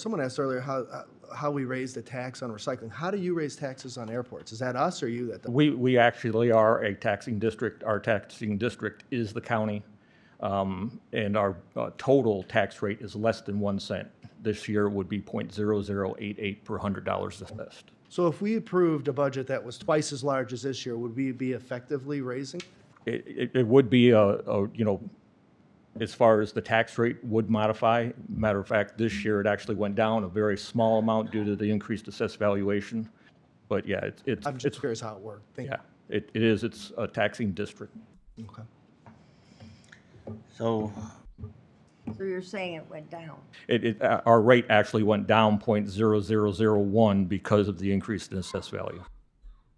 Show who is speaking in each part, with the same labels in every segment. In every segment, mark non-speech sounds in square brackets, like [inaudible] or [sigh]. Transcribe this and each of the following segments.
Speaker 1: Someone asked earlier how, uh, how we raise the tax on recycling. How do you raise taxes on airports? Is that us or you that,
Speaker 2: We, we actually are a taxing district. Our taxing district is the county. um, And our uh, total tax rate is less than one cent. This year would be .0088 per hundred dollars assessed.
Speaker 1: so if we approved a budget that was twice as large as this year, would we be effectively raising?
Speaker 2: It, it, it would be a, a, you know, as far as the tax rate would modify. Matter of fact, this year it actually went down a very small amount due to the increased assessed valuation. But yeah, it's, it's,
Speaker 1: I'm just
Speaker 2: it's-
Speaker 1: curious how it worked. Thank you.
Speaker 2: yeah, it, it is, it's a taxing district.
Speaker 1: Okay.
Speaker 3: So,
Speaker 4: So you're saying it went down?
Speaker 2: It, it, uh, our rate actually went down point zero zero zero one because of the increase in assessed value.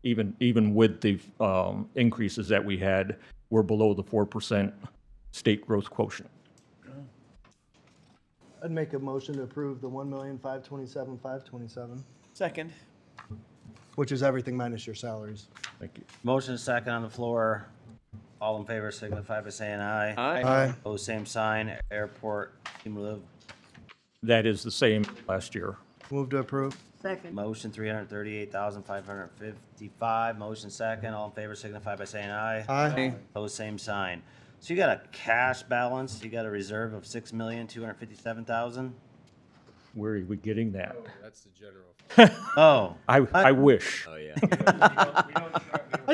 Speaker 2: Even, even with the, um, increases that we had, we're below the four percent state growth quotient.
Speaker 1: I'd make a motion to approve the one million, five twenty-seven, five twenty-seven,
Speaker 5: Second.
Speaker 1: which is everything minus your salaries.
Speaker 2: Thank you.
Speaker 3: motion is second on the floor. All in favor signify by saying aye.
Speaker 5: Aye.
Speaker 1: Aye.
Speaker 3: Opposed, same sign. Airport cumulative
Speaker 2: That is the same last year.
Speaker 1: Move to approve.
Speaker 4: Second,
Speaker 3: motion three hundred thirty-eight thousand five hundred fifty-five. Motion second. All in favor signify by saying aye.
Speaker 1: Aye.
Speaker 3: Opposed, same sign. So you got a cash balance, you got a reserve of six million two hundred fifty-seven thousand?
Speaker 2: Where are we getting that?
Speaker 3: Oh,
Speaker 2: I, I wish.
Speaker 1: I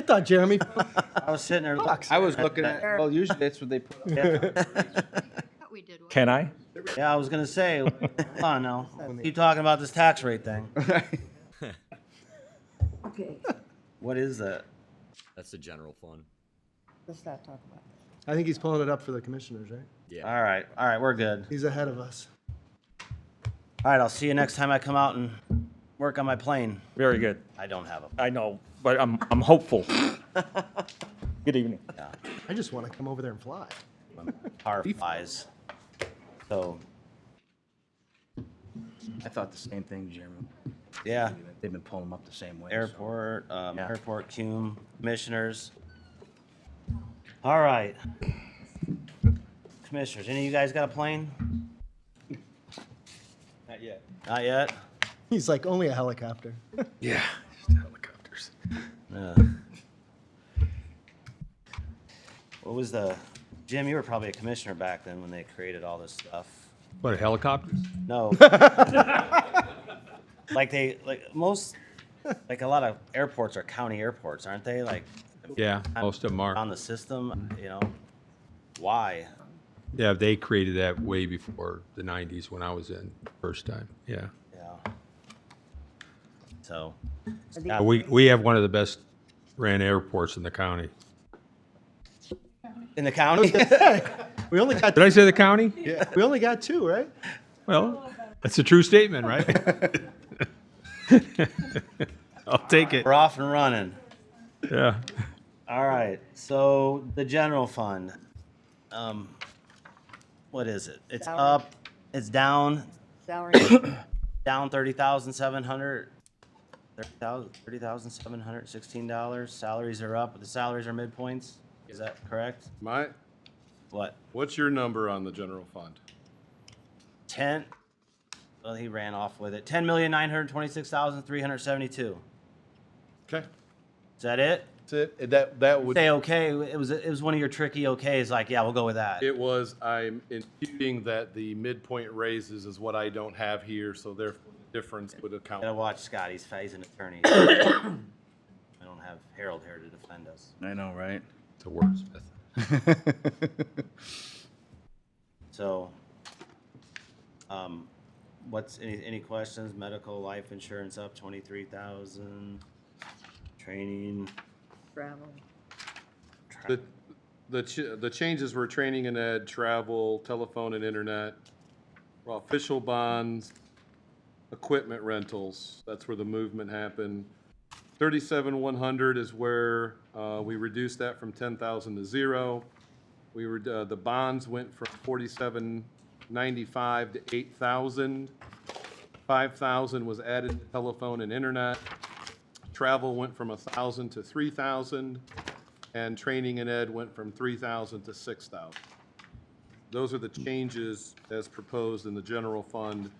Speaker 1: thought Jeremy, [laughs]
Speaker 3: I was sitting there.
Speaker 5: I was looking at, well, usually that's what they put.
Speaker 3: Yeah,
Speaker 6: thought we did one.
Speaker 2: Can I?
Speaker 3: Yeah, I was gonna say, hold on now. Keep talking about this tax rate thing.
Speaker 4: okay,
Speaker 3: What is that?
Speaker 7: That's the general fund.
Speaker 4: let's not talk about it.
Speaker 1: I think he's pulling it up for the commissioners, right?
Speaker 7: Yeah.
Speaker 3: All right, all right, we're good.
Speaker 1: He's ahead of us.
Speaker 3: All right, I'll see you next time I come out and work on my plane.
Speaker 2: Very good.
Speaker 3: I don't have a.
Speaker 2: I know, but I'm, I'm hopeful. [laughs] Good evening.
Speaker 1: I just want to come over there and fly.
Speaker 3: Car flies. So,
Speaker 5: I thought the same thing, Jeremy.
Speaker 3: yeah,
Speaker 5: They've been pulling them up the same way. so-
Speaker 3: airport, um,
Speaker 5: Yeah.
Speaker 3: airport cum, commissioners. All right. Commissioners, any of you guys got a plane?
Speaker 5: Not yet.
Speaker 3: Not yet?
Speaker 1: He's like, only a helicopter. [laughs]
Speaker 5: Yeah, just helicopters.
Speaker 3: Yeah. What was the, Jim, you were probably a commissioner back then when they created all this stuff.
Speaker 8: What, helicopters?
Speaker 3: No. like they like most like a lot of airports are county airports, aren't they? Like
Speaker 8: Yeah, most of them
Speaker 3: on
Speaker 8: are.
Speaker 3: the system, you know. Why?
Speaker 8: Yeah, they created that way before the 90s when I was in first time. Yeah.
Speaker 3: Yeah. So
Speaker 4: Are these-
Speaker 3: Yeah,
Speaker 8: But We, we have one of the best ran airports in the county.
Speaker 3: in the county?
Speaker 1: We only got,
Speaker 8: Did I say the county? Yeah.
Speaker 1: we only got two, right?
Speaker 8: Well, that's a true statement, right? [laughs] I'll take it.
Speaker 3: We're off and running.
Speaker 8: [laughs] Yeah.
Speaker 3: All right. So the general fund. Um what is it? It's
Speaker 4: Down.
Speaker 3: up, it's down,
Speaker 6: [coughs]
Speaker 4: Salary,
Speaker 3: down thirty thousand seven hundred. Thirty thousand, thirty thousand seven hundred sixteen dollars. Salaries are up, but the salaries are midpoints. Is that correct?
Speaker 9: My,
Speaker 3: What,
Speaker 9: what's your number on the general fund?
Speaker 3: ten? Well, he ran off with it. Ten million nine hundred twenty-six thousand three hundred seventy-two.
Speaker 9: Okay.
Speaker 3: Is that it?
Speaker 9: That's it. That, that would,
Speaker 3: Say okay. It was it was one of your tricky okays. Like yeah, we'll go with that.
Speaker 9: it was, I'm imputing that the midpoint raises is what I don't have here, so therefore the difference would account.
Speaker 3: Gotta watch Scott. He's he's an attorney. [coughs] I don't have Harold here to defend us.
Speaker 5: I know, [laughs] right?
Speaker 8: It's a wordsmith.
Speaker 3: So, um, what's, any, any questions? Medical, life insurance up twenty-three thousand, training.
Speaker 4: travel,
Speaker 3: tra-
Speaker 9: The, the, ch- the changes were training and ed, travel, telephone and internet, official bonds, equipment rentals. That's where the movement happened. Thirty-seven one hundred is where, uh, we reduced that from ten thousand to zero. We were, uh, the bonds went from forty-seven ninety-five to eight thousand. Five thousand was added to telephone and internet. Travel went from a thousand to three thousand and training and ed went from three thousand to six thousand. Those are the changes as proposed in the general fund